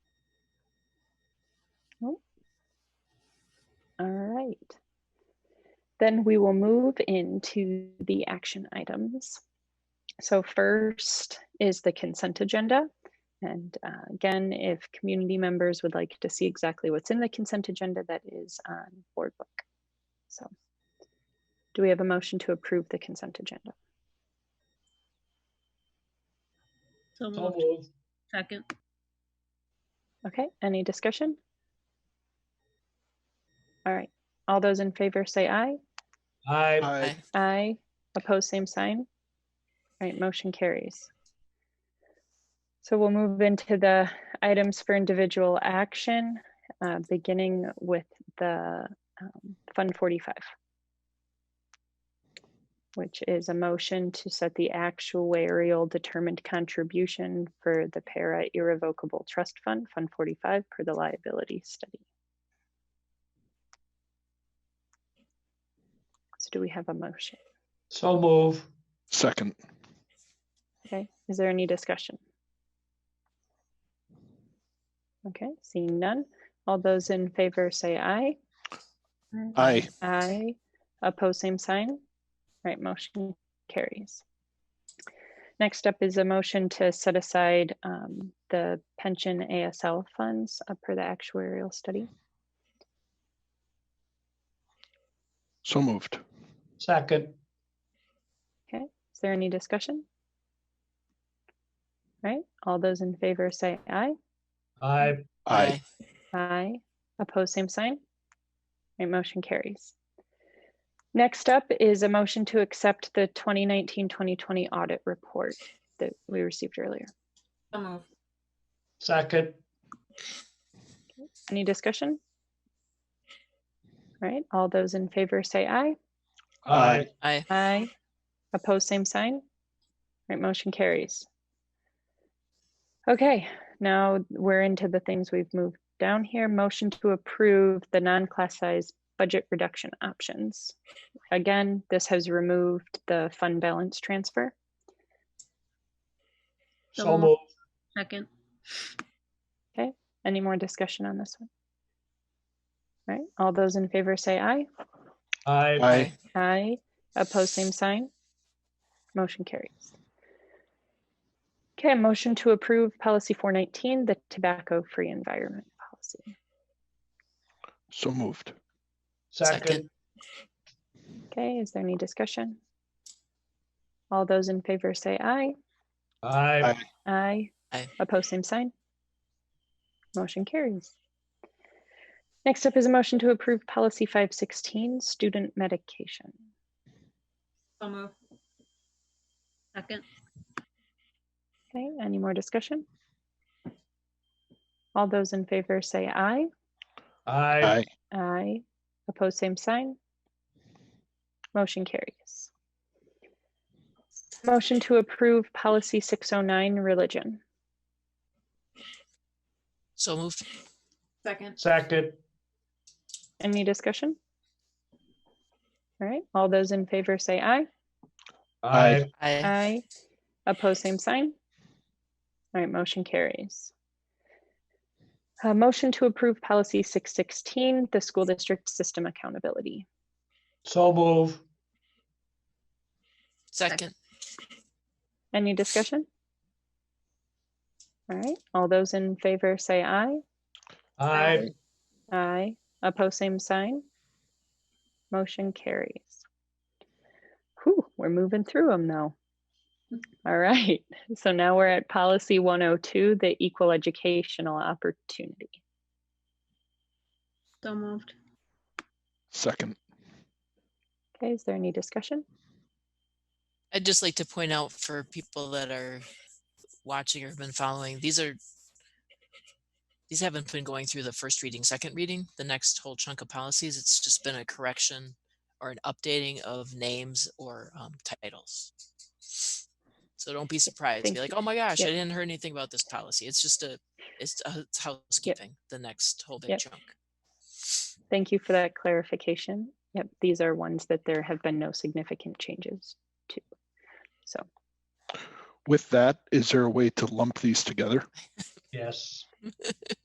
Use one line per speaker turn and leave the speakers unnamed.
Great. Then we will move into the action items. So first is the consent agenda. And uh, again, if community members would like to see exactly what's in the consent agenda, that is on board book. So do we have a motion to approve the consent agenda?
So
So
moved.
moved.
Second.
Okay, any discussion? All right, all those in favor say aye.
Aye.
Aye.
Aye. Opposed, same sign. All right, motion carries. So we'll move into the items for individual action, uh, beginning with the um, Fund 45, which is a motion to set the actuarial determined contribution for the para irrevocable trust fund, Fund 45, per the liability study. So do we have a motion?
So move.
Second.
Okay, is there any discussion? Okay, seeing none. All those in favor say aye.
Aye.
Aye. Oppose, same sign. Right, motion carries. Next up is a motion to set aside um, the pension ASL funds uh, per the actuarial study.
So moved.
Second.
Is there any discussion? Right, all those in favor say aye.
Aye.
Aye.
Aye. Opposed, same sign. Right, motion carries. Next up is a motion to accept the 2019-2020 audit report that we received earlier.
So moved.
Second.
Any discussion? All right, all those in favor say aye.
Aye.
Aye.
Aye. Opposed, same sign. Right, motion carries. Okay, now we're into the things we've moved down here. Motion to approve the non-class size budget reduction options. Again, this has removed the fund balance transfer.
So moved.
Second.
Any more discussion on this one? All right, all those in favor say aye.
Aye.
Aye.
Aye. Opposed, same sign. Motion carries. Okay, motion to approve policy four nineteen, the tobacco-free environment policy.
So moved.
Second.
Okay, is there any discussion? All those in favor say aye.
Aye.
Aye.
Aye.
Aye.
Opposed, same sign. Motion carries. Next up is a motion to approve policy five sixteen, student medication.
So moved. Second.
Okay, any more discussion? All those in favor say aye.
Aye.
Aye.
Aye. Opposed, same sign. Motion carries. Motion to approve policy six oh nine, religion.
So moved.
Second.
Second.
Any discussion? All right, all those in favor say aye.
Aye.
Aye.
Aye. Opposed, same sign. All right, motion carries. A motion to approve policy six sixteen, the school district system accountability.
So move.
Second.
Any discussion? All right, all those in favor say aye.
Aye.
Aye. Opposed, same sign. Motion carries. Whew, we're moving through them though. All right, so now we're at policy 102, the equal educational opportunity.
So moved.
Second.
Okay, is there any discussion?
I'd just like to point out for people that are watching or have been following, these are these haven't been going through the first reading, second reading, the next whole chunk of policies. It's just been a correction or an updating of names or um, titles. So don't be surprised.
Thank
Be like,
you.
oh my gosh, I
Yep.
didn't hear anything about this policy. It's just a, it's, a, it's housekeeping, the next whole big
Yep.
chunk.
Thank you for that clarification. Yep, these are ones that there have been no significant changes to. So,
With that, is there a way to lump these together?
Yes.